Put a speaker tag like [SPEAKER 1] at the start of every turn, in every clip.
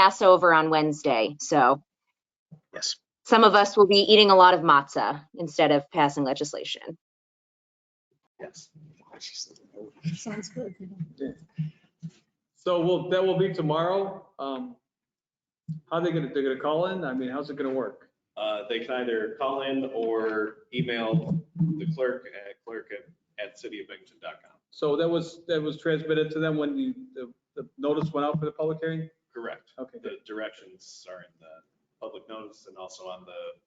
[SPEAKER 1] Passover on Wednesday, so
[SPEAKER 2] Yes.
[SPEAKER 1] some of us will be eating a lot of matzah instead of passing legislation.
[SPEAKER 2] Yes.
[SPEAKER 3] Sounds good.
[SPEAKER 4] So we'll, that will be tomorrow. Um, How they gonna, they're gonna call in? I mean, how's it gonna work?
[SPEAKER 5] Uh, They can either call in or email the clerk at clerk@cityofbennington.com.
[SPEAKER 4] So that was, that was transmitted to them when you, the, the notice went out for the public hearing?
[SPEAKER 5] Correct.
[SPEAKER 4] Okay,
[SPEAKER 5] The directions are in the public notice and also on the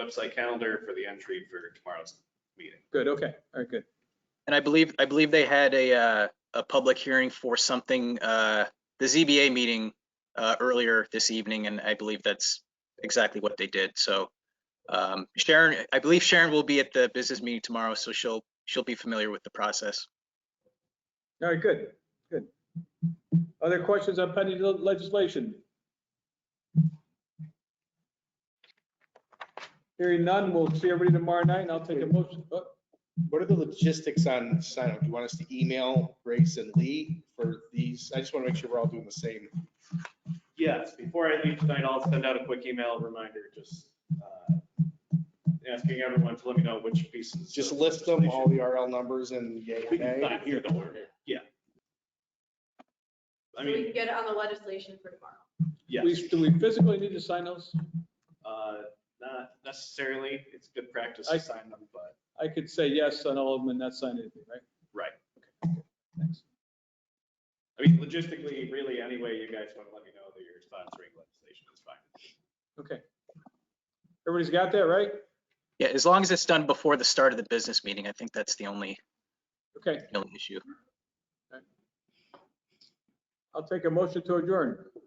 [SPEAKER 5] website calendar for the entry for tomorrow's meeting.
[SPEAKER 4] good, okay, all right, good.
[SPEAKER 2] And I believe, I believe they had a, uh, a public hearing for something, uh, the ZBA meeting, uh, earlier this evening, and I believe that's exactly what they did. So, um, Sharon, I believe Sharon will be at the business meeting tomorrow, so she'll, she'll be familiar with the process.
[SPEAKER 4] All right, good, good. Other questions on pending le- legislation? Hearing none, we'll see everybody tomorrow night and I'll take a motion. Oh,
[SPEAKER 6] What are the logistics on sign up? Do you want us to email Grace and Lee for these? I just want to make sure we're all doing the same.
[SPEAKER 5] Yes, before I leave tonight, I'll send out a quick email reminder, just uh, asking everyone to let me know which pieces.
[SPEAKER 6] Just
[SPEAKER 5] of
[SPEAKER 6] list them, all
[SPEAKER 5] legislation-
[SPEAKER 6] the RL numbers and yay and
[SPEAKER 5] We can
[SPEAKER 6] nay.
[SPEAKER 5] sign here, don't worry. Yeah. I
[SPEAKER 7] So we
[SPEAKER 5] mean,
[SPEAKER 7] can get it on the legislation for tomorrow.
[SPEAKER 5] yes.
[SPEAKER 4] we- Do we physically need to sign those?
[SPEAKER 5] Uh, Not necessarily. It's good practice
[SPEAKER 4] I-
[SPEAKER 5] to sign them, but
[SPEAKER 4] I could say yes on all of them and not sign anything, right?
[SPEAKER 5] Right.
[SPEAKER 4] Okay, Thanks.
[SPEAKER 5] I mean, logistically, really, any way you guys want to let me know that you're sponsoring legislation is fine.
[SPEAKER 4] Okay. Everybody's got that, right?
[SPEAKER 2] Yeah, as long as it's done before the start of the business meeting, I think that's the only,
[SPEAKER 4] Okay,
[SPEAKER 2] the only issue.
[SPEAKER 4] I'll take a motion to adjourn.